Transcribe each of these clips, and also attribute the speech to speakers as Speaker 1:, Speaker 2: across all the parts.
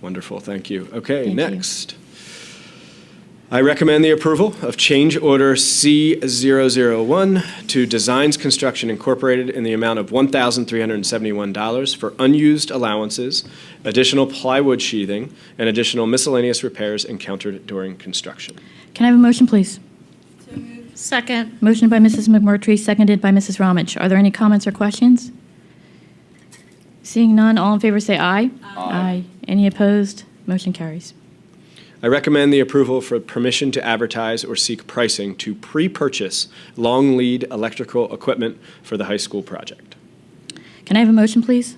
Speaker 1: Wonderful, thank you. Okay,
Speaker 2: Thank you.
Speaker 1: next. I recommend the approval of change order C001 to Designs Construction Incorporated in the amount of $1,371 for unused allowances, additional plywood sheathing, and additional miscellaneous repairs encountered during construction.
Speaker 2: Can I have a motion, please?
Speaker 3: Second.
Speaker 2: Motion by Mrs. McMurtry, seconded by Mrs. Ramage. Are there any comments or questions? Seeing none, all in favor say aye. Aye. Any opposed? Motion carries.
Speaker 1: I recommend the approval for permission to advertise or seek pricing to pre-purchase long lead electrical equipment for the high school project.
Speaker 2: Can I have a motion, please?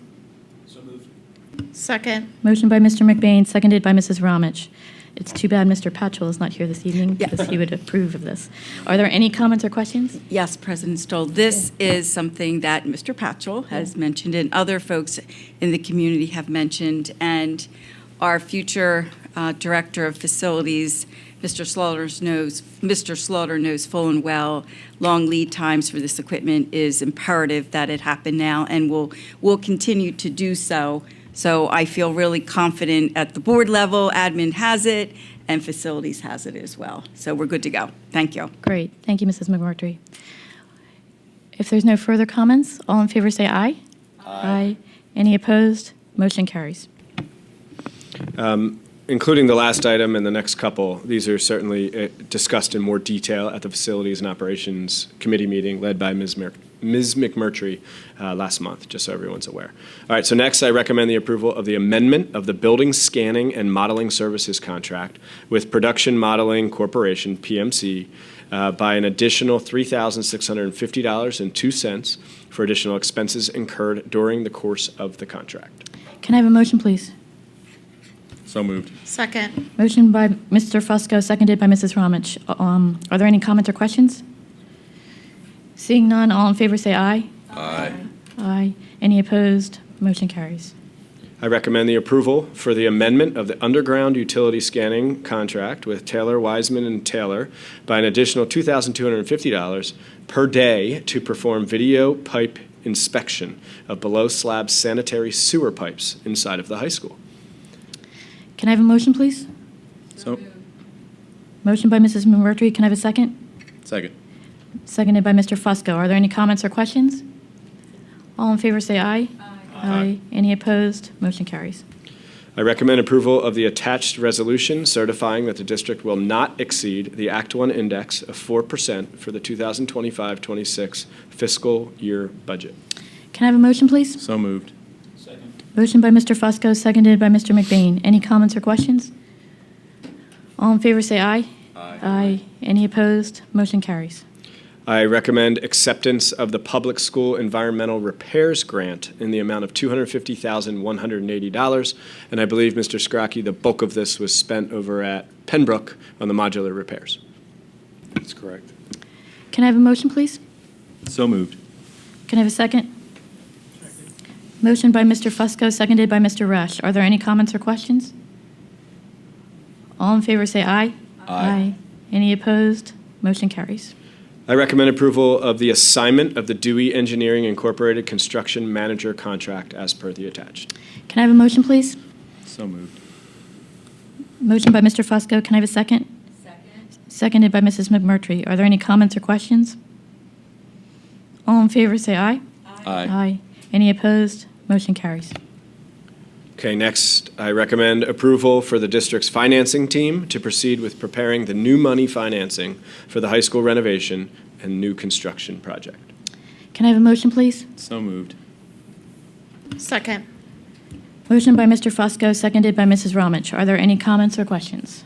Speaker 3: Second.
Speaker 2: Motion by Mr. McBain, seconded by Mrs. Ramage. It's too bad Mr. Patchell is not here this evening because he would approve of this. Are there any comments or questions?
Speaker 4: Yes, President Stoll, this is something that Mr. Patchell has mentioned and other folks in the community have mentioned. And our future uh, Director of Facilities, Mr. Slaughter knows, Mr. Slaughter knows full and well, long lead times for this equipment is imperative that it happen now and will, will continue to do so. So I feel really confident at the board level, admin has it, and facilities has it as well. So we're good to go. Thank you.
Speaker 2: Great, thank you, Mrs. McMurtry. If there's no further comments, all in favor say aye. Aye. Any opposed? Motion carries.
Speaker 1: including the last item and the next couple, these are certainly uh, discussed in more detail at the Facilities and Operations Committee meeting led by Ms. Mer- Ms. McMurtry uh, last month, just so everyone's aware. All right, so next, I recommend the approval of the amendment of the Building Scanning and Modeling Services Contract with Production Modeling Corporation, PMC, uh, by an additional $3,650.02 for additional expenses incurred during the course of the contract.
Speaker 2: Can I have a motion, please?
Speaker 5: So moved.
Speaker 3: Second.
Speaker 2: Motion by Mr. Fusco, seconded by Mrs. Ramich. Um, Are there any comments or questions? Seeing none, all in favor say aye.
Speaker 5: Aye.
Speaker 2: Aye. Any opposed? Motion carries.
Speaker 1: I recommend the approval for the amendment of the underground utility scanning contract with Taylor Wiseman and Taylor by an additional $2,250 per day to perform video pipe inspection of below slab sanitary sewer pipes inside of the high school.
Speaker 2: Can I have a motion, please?
Speaker 5: So,
Speaker 2: Motion by Mrs. McMurtry, can I have a second?
Speaker 5: second.
Speaker 2: Seconded by Mr. Fusco. Are there any comments or questions? All in favor say aye. Aye. Any opposed? Motion carries.
Speaker 1: I recommend approval of the attached resolution certifying that the district will not exceed the Act One index of 4% for the 2025-26 fiscal year budget.
Speaker 2: Can I have a motion, please?
Speaker 5: So moved.
Speaker 2: Motion by Mr. Fusco, seconded by Mr. McBain. Any comments or questions? All in favor say aye. Aye. Any opposed? Motion carries.
Speaker 1: I recommend acceptance of the Public School Environmental Repairs Grant in the amount of $250,180. And I believe, Mr. Scrocky, the bulk of this was spent over at Pembroke on the modular repairs.
Speaker 5: That's correct.
Speaker 2: Can I have a motion, please?
Speaker 5: So moved.
Speaker 2: Can I have a second? Motion by Mr. Fusco, seconded by Mr. Rush. Are there any comments or questions? All in favor say aye. Aye. Any opposed? Motion carries.
Speaker 1: I recommend approval of the assignment of the Dewey Engineering Incorporated Construction Manager contract as per the attached.
Speaker 2: Can I have a motion, please?
Speaker 5: So moved.
Speaker 2: Motion by Mr. Fusco, can I have a second? Seconded by Mrs. McMurtry. Are there any comments or questions? All in favor, say aye.
Speaker 5: Aye.
Speaker 2: Aye. Any opposed? Motion carries.
Speaker 1: Okay, next, I recommend approval for the district's financing team to proceed with preparing the new money financing for the high school renovation and new construction project.
Speaker 2: Can I have a motion, please?
Speaker 5: So moved.
Speaker 3: Second.
Speaker 2: Motion by Mr. Fusco, seconded by Mrs. Ramich. Are there any comments or questions?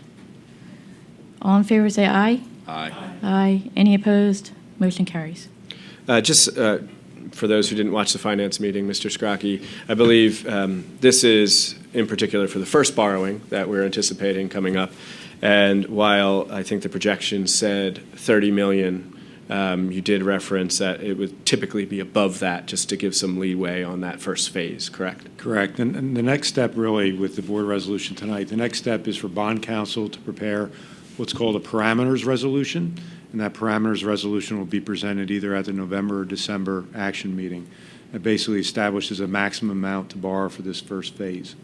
Speaker 2: All in favor, say aye.
Speaker 5: Aye.
Speaker 2: Aye. Any opposed? Motion carries.
Speaker 1: Uh, Just uh, for those who didn't watch the finance meeting, Mr. Scrocky, I believe um, this is in particular for the first borrowing that we're anticipating coming up. And while I think the projection said 30 million, um, you did reference that it would typically be above that, just to give some leeway on that first phase, correct?
Speaker 6: Correct. And, and the next step really with the board resolution tonight, the next step is for bond counsel to prepare what's called a parameters resolution. And that parameters resolution will be presented either at the November or December action meeting. It basically establishes a maximum amount to borrow for this first phase.